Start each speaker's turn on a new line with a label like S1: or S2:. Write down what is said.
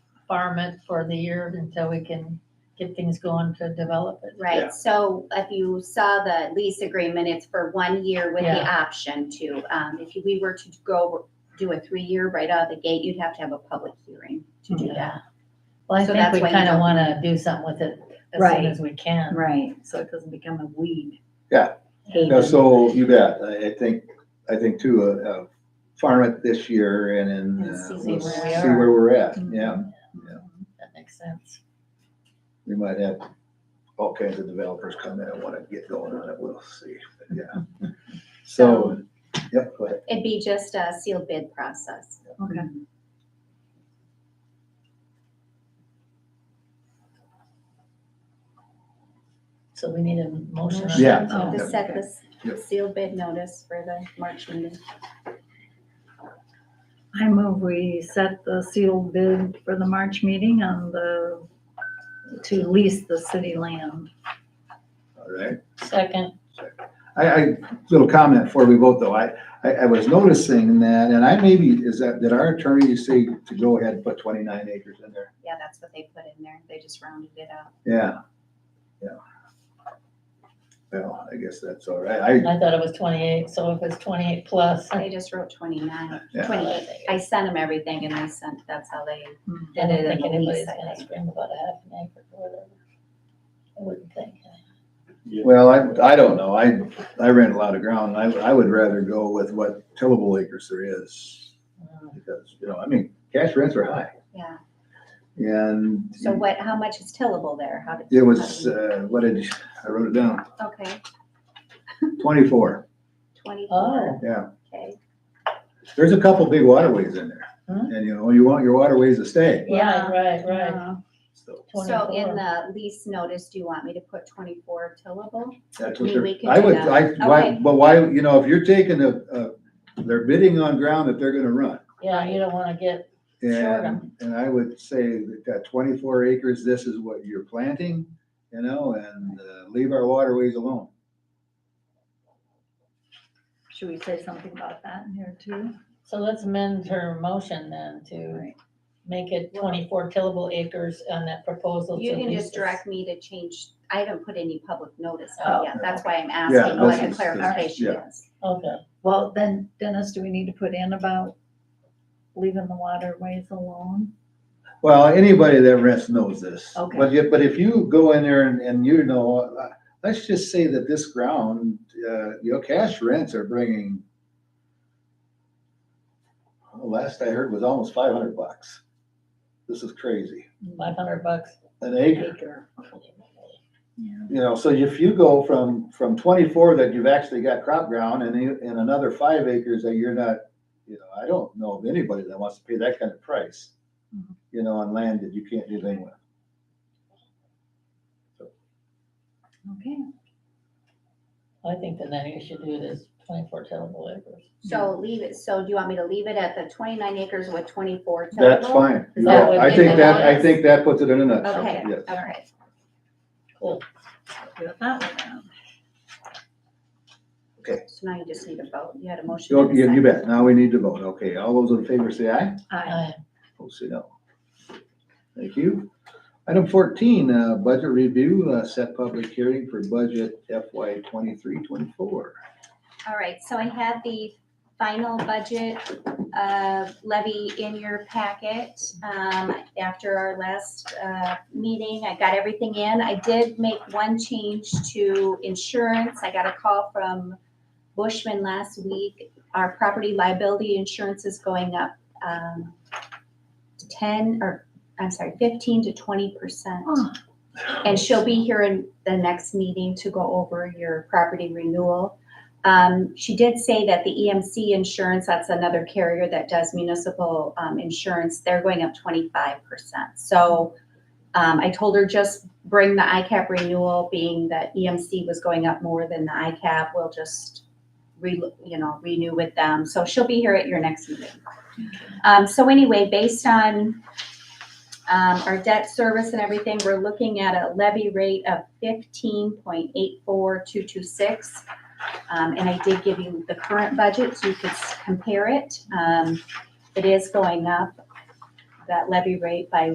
S1: farm it for the year until we can get things going to develop it.
S2: Right,
S3: Yeah.
S2: so if you saw the lease agreement, it's for one year with the
S1: Yeah.
S2: option to, um, if we were to go do a three-year right out of the gate, you'd have to have a public hearing to do
S1: Yeah.
S2: that.
S1: Well, I
S2: So that's
S1: think we
S2: why you
S1: kind of
S2: don't-
S1: want to do something with it as soon
S4: Right.
S1: as we can.
S4: Right, so it doesn't become a weed.
S3: Yeah.
S4: Haven.
S3: No, so you bet. I, I think, I think too, uh, uh, farm it this year and then
S4: And
S3: uh,
S4: see
S3: we'll
S1: where
S3: see
S1: we
S4: are. Mm-hmm.
S3: where we're at. Yeah,
S1: That makes sense.
S3: we might have all kinds of developers come in and want to get going on it. We'll see. But Yeah.
S4: Mm-hmm.
S3: So, yep, go ahead.
S2: It'd be just a sealed bid process.
S4: Okay.
S1: So we need a motion. on
S3: Yeah.
S1: that,
S4: Oh.
S2: To set this
S3: Yep.
S2: sealed bid notice for the March meeting.
S4: I move we set the sealed bid for the March meeting on the, to lease the city land.
S3: all right.
S1: Second,
S3: I, I, little comment before we vote though. I, I, I was noticing that, and I maybe, is that, did our attorney say to go ahead and put twenty-nine acres in there?
S2: Yeah, that's what they put in there. They just rounded it up.
S3: Yeah, yeah. Well, I guess that's all right. I,
S1: I thought it was twenty-eight, so if it's twenty-eight plus,
S2: They just wrote twenty-nine,
S3: Yeah.
S2: twenty-eight. I sent them everything and they sent, that's how they
S1: Hmm. I
S2: did
S1: don't
S2: it in
S1: think
S2: the
S1: anybody's
S2: lease, I
S1: gonna
S2: think.
S1: scream about a half an acre or whatever. I wouldn't think.
S3: Well, I, I don't know. I, I rent a lot of ground and I, I would rather go with what tillable acres there is.
S2: Oh.
S3: Because, you know, I mean, cash rents are high
S2: Yeah,
S3: and
S2: so what, how much is tillable there? How did?
S3: it
S2: how
S3: was,
S2: do you-
S3: uh, what did, you- I wrote it down,
S2: Okay,
S3: twenty-four,
S1: Oh,
S2: twenty-four,
S3: yeah.
S2: okay.
S3: There's a couple big waterways in there.
S1: Hmm.
S3: And you know, you want your waterways to stay,
S1: yeah, right, right.
S4: Uh,
S3: so
S2: So in
S1: 24.
S2: the lease notice, do you want me to put twenty-four tillable?
S3: that's what
S2: We-
S3: they're,
S2: we can
S3: I
S2: do
S3: would,
S2: that.
S3: I, why,
S2: Okay.
S3: but why, you know, if you're taking a, a, they're bidding on ground that they're gonna run.
S1: Yeah, you don't wanna get, Sure.
S3: And, and I would say that that twenty-four acres, this is what you're planting, you know, and uh, leave our waterways alone.
S4: Should we say something about that in here too?
S1: so let's amend her motion then to
S4: Right.
S1: make it twenty-four tillable acres on that proposal.
S2: You
S1: to
S2: can
S1: lease
S2: just
S1: this.
S2: direct me to change, I haven't put any public notice
S1: Oh.
S2: out yet. That's why I'm
S3: Yeah,
S2: asking what
S3: okay.
S2: the clarification is.
S1: Okay,
S4: Well, then Dennis, do we need to put in about leaving the waterways alone?
S3: Well, anybody that rents knows this.
S4: Okay.
S3: But if, but if you go in there and, and you know, uh, let's just say that this ground, uh, your cash rents are bringing, well, last I heard was almost five hundred bucks. This is crazy,
S1: five hundred bucks.
S3: an acre.
S1: Acre.
S3: You know, so if you go from, from twenty-four that you've actually got crop ground and, you- and another five acres that you're not, you know, I don't know of anybody that wants to pay that kind of price,
S2: Mm-hmm.
S4: Mhm.
S3: you know, on land that you can't do anything with.
S4: Okay.
S1: I think the next you should do it is twenty-four tillable acres.
S2: So leave it, so do you want me to leave it at the twenty-nine acres with twenty-four tillable?
S3: That's fine.
S2: Is that
S3: Yeah,
S1: what
S3: I
S1: they
S3: think
S1: did
S3: that, I
S2: last?
S3: think that puts it in a nutshell.
S2: Okay,
S3: yes.
S2: all right.
S4: Do it that way then.
S2: So now you just need a vote. You had a motion. and a
S3: So, Oh, You
S2: second.
S3: you bet. Now we need to vote. Okay, all those in favor say aye.
S4: Aye.
S1: Aye.
S3: Opposed say no. Thank you. Item fourteen, uh, budget review, uh, set public hearing for budget FY twenty-three, twenty-four.
S2: All right, so I had the final budget uh, levy in your packet. Um, After our last uh, meeting, I got everything in. I did make one change to insurance. I got a call from Bushman last week. Our property liability insurance is going up um, ten, or, I'm sorry, fifteen to twenty percent.
S4: Oh.
S2: And she'll be here in the next meeting to go over your property renewal. Um, she did say that the EMC insurance, that's another carrier that does municipal, um, insurance, they're going up twenty-five percent. So, um, I told her just bring the ICAP renewal, being that EMC was going up more than the ICAP, we'll just re, you know, renew with them. So she'll be here at your next meeting. Um, so anyway, based on, um, our debt service and everything, we're looking at a levy rate of fifteen point eight four two two six. Um, and I did give you the current budget, so you could s- compare it. Um, it is going up, that levy rate by